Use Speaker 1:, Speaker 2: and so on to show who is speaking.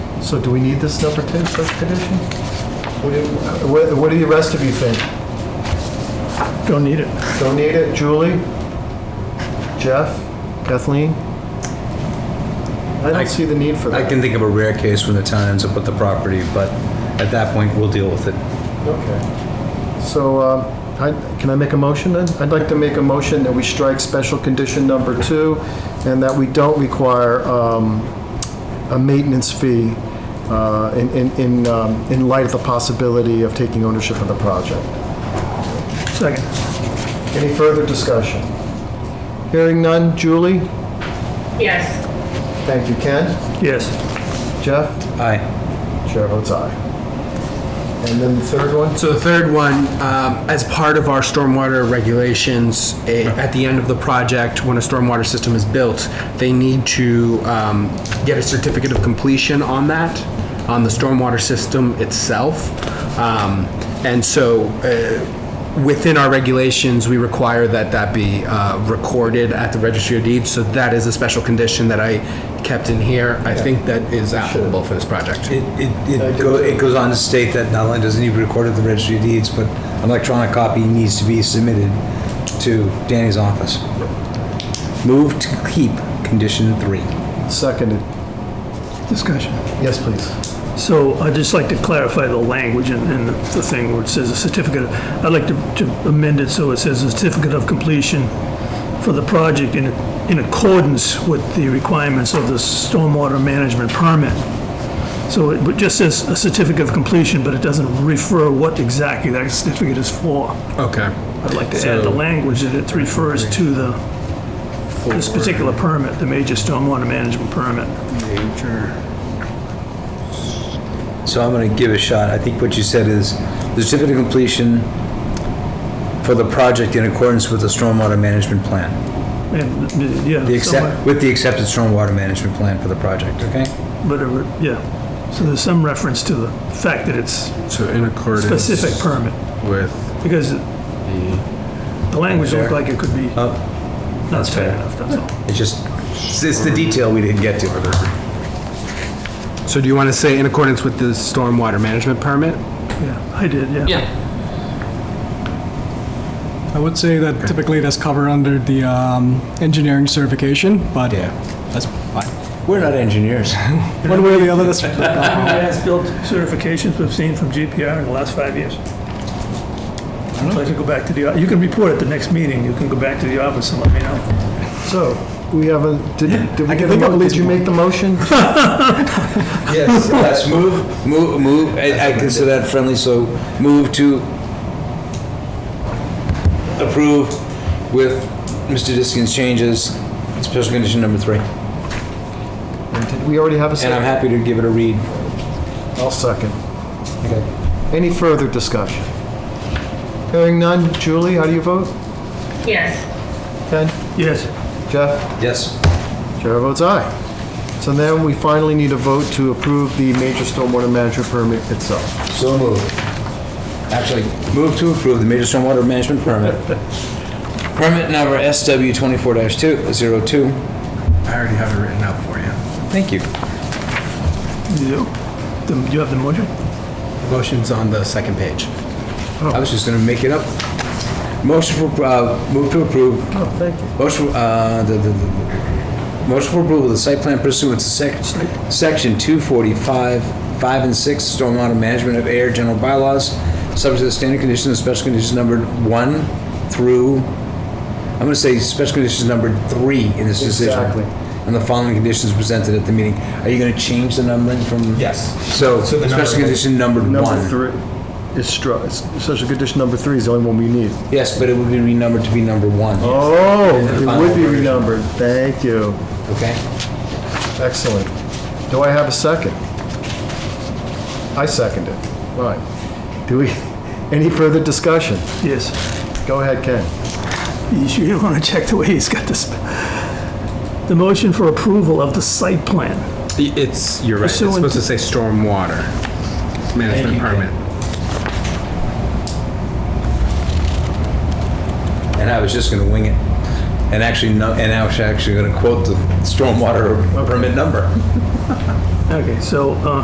Speaker 1: So do we need this number 10 special condition? What do you- What what do the rest of you think?
Speaker 2: Don't need it.
Speaker 1: Don't need it? Julie? Jeff? Kathleen? I
Speaker 3: I-
Speaker 1: don't see the need for
Speaker 3: I
Speaker 1: that.
Speaker 3: can think of a rare case when the town ends up with the property, but at that point, we'll deal with it.
Speaker 1: Okay. So, um, I- can I make a motion then? I'd like to make a motion that we strike special condition number two, and that we don't require um, a maintenance fee uh, in in in um, in light of the possibility of taking ownership of the project.
Speaker 2: Second.
Speaker 1: Any further discussion? Hearing none. Julie?
Speaker 4: yes.
Speaker 1: Thank you. Ken?
Speaker 2: Yes.
Speaker 1: Jeff?
Speaker 3: Aye.
Speaker 1: Chair votes aye. And then the third one?
Speaker 5: So the third one, um, as part of our stormwater regulations, eh, at the end of the project, when a stormwater system is built, they need to um, get a certificate of completion on that, on the stormwater system itself. Um, And so eh, within our regulations, we require that that be uh, recorded at the registry of deeds. So that is a special condition that I kept in here. I think that is applicable for this project.
Speaker 3: It, it, it go- it goes on to state that not only does it need to be recorded at the registry of deeds, but an electronic copy needs to be submitted to Danny's office. Move to keep condition three.
Speaker 1: Seconded.
Speaker 2: Discussion.
Speaker 1: Yes, please.
Speaker 2: So I'd just like to clarify the language in, in the thing where it says a certificate. I'd like to, to amend it so it says a certificate of completion for the project in, in accordance with the requirements of the stormwater management permit. So it would- just says a certificate of completion, but it doesn't refer what exactly that certificate is for.
Speaker 5: Okay.
Speaker 2: I'd like to add the language that it refers to the, this particular permit, the major stormwater management permit.
Speaker 3: So I'm gonna give it a shot. I think what you said is, the certificate of completion for the project in accordance with the stormwater management plan.
Speaker 2: And, uh, yeah.
Speaker 3: The
Speaker 2: somewhere-
Speaker 3: accept, with the accepted stormwater management plan for the project, okay?
Speaker 2: whatever, yeah. So there's some reference to the fact that it's
Speaker 6: So in accordance
Speaker 2: specific permit,
Speaker 6: with
Speaker 2: because the language looked like it could be
Speaker 3: Oh,
Speaker 2: not fair
Speaker 3: fair.
Speaker 2: enough, that's all.
Speaker 3: It's just, it's the detail we didn't get to.
Speaker 5: So do you want to say in accordance with the stormwater management permit?
Speaker 2: Yeah, I did, yeah.
Speaker 7: I would say that typically that's covered under the um, engineering certification, but
Speaker 3: Yeah.
Speaker 7: that's fine.
Speaker 3: We're not engineers.
Speaker 7: One way or the other, that's
Speaker 2: As-built certifications we've seen from GPR in the last five years. I'd like to go back to the, you can report at the next meeting, you can go back to the office and let me know.
Speaker 1: So, we have a, did did we get a,
Speaker 7: I can think of
Speaker 1: mo-
Speaker 7: at
Speaker 1: did
Speaker 7: least
Speaker 1: you
Speaker 7: one.
Speaker 1: make the motion?
Speaker 3: Yes, let's move, move, move, I I consider that friendly, so move to approve with Mr. Diskin's changes, special condition number three.
Speaker 1: Did we already have a
Speaker 3: And I'm
Speaker 1: second?
Speaker 3: happy to give it a read.
Speaker 1: I'll second.
Speaker 3: Okay.
Speaker 1: Any further discussion? Hearing none. Julie, how do you vote?
Speaker 4: Yes.
Speaker 1: Ken?
Speaker 2: Yes,
Speaker 1: Jeff?
Speaker 3: Yes.
Speaker 1: Chair votes aye. So then we finally need a vote to approve the major stormwater management permit itself.
Speaker 3: So moved. Actually, move to approve the major stormwater management permit. Permit number SW twenty-four 2 02.
Speaker 5: I already have it written out for you.
Speaker 3: Thank you.
Speaker 2: you, do you have the motion?
Speaker 5: Motion's on the second page.
Speaker 3: I was just gonna make it up. Motion for, uh, move to approve. Oh, thank you. Motion, for, uh, the, the, the- motion for approval of the site plan pursuant to sec- section two forty-five, five and six, stormwater management of air general bylaws, subject to the standard conditions and special conditions numbered one through, I'm gonna say special conditions numbered three in this decision.
Speaker 1: Exactly.
Speaker 3: And the following conditions presented at the meeting. Are you gonna change the numbering from?
Speaker 6: Yes.
Speaker 3: So,
Speaker 6: So the
Speaker 3: special
Speaker 6: number-
Speaker 3: condition numbered one.
Speaker 1: Number three is struck, special condition number three is the only one we need.
Speaker 3: Yes, but it would be renumbered to be number one.
Speaker 1: Oh, it
Speaker 3: Final
Speaker 1: would be
Speaker 3: version.
Speaker 1: renumbered. Thank you.
Speaker 3: Okay.
Speaker 1: Excellent. Do I have a second? I second it. Right. Do we, any further discussion?
Speaker 2: Yes.
Speaker 1: Go ahead, Ken.
Speaker 2: You sure you want to check the way he's got this? The motion for approval of the site plan.
Speaker 5: It's, you're right, it's
Speaker 2: Pursuant
Speaker 5: supposed to say stormwater management permit.
Speaker 3: And I was just gonna wing it. And actually, no, and I was actually gonna quote the stormwater permit number.
Speaker 2: Okay, so, uh,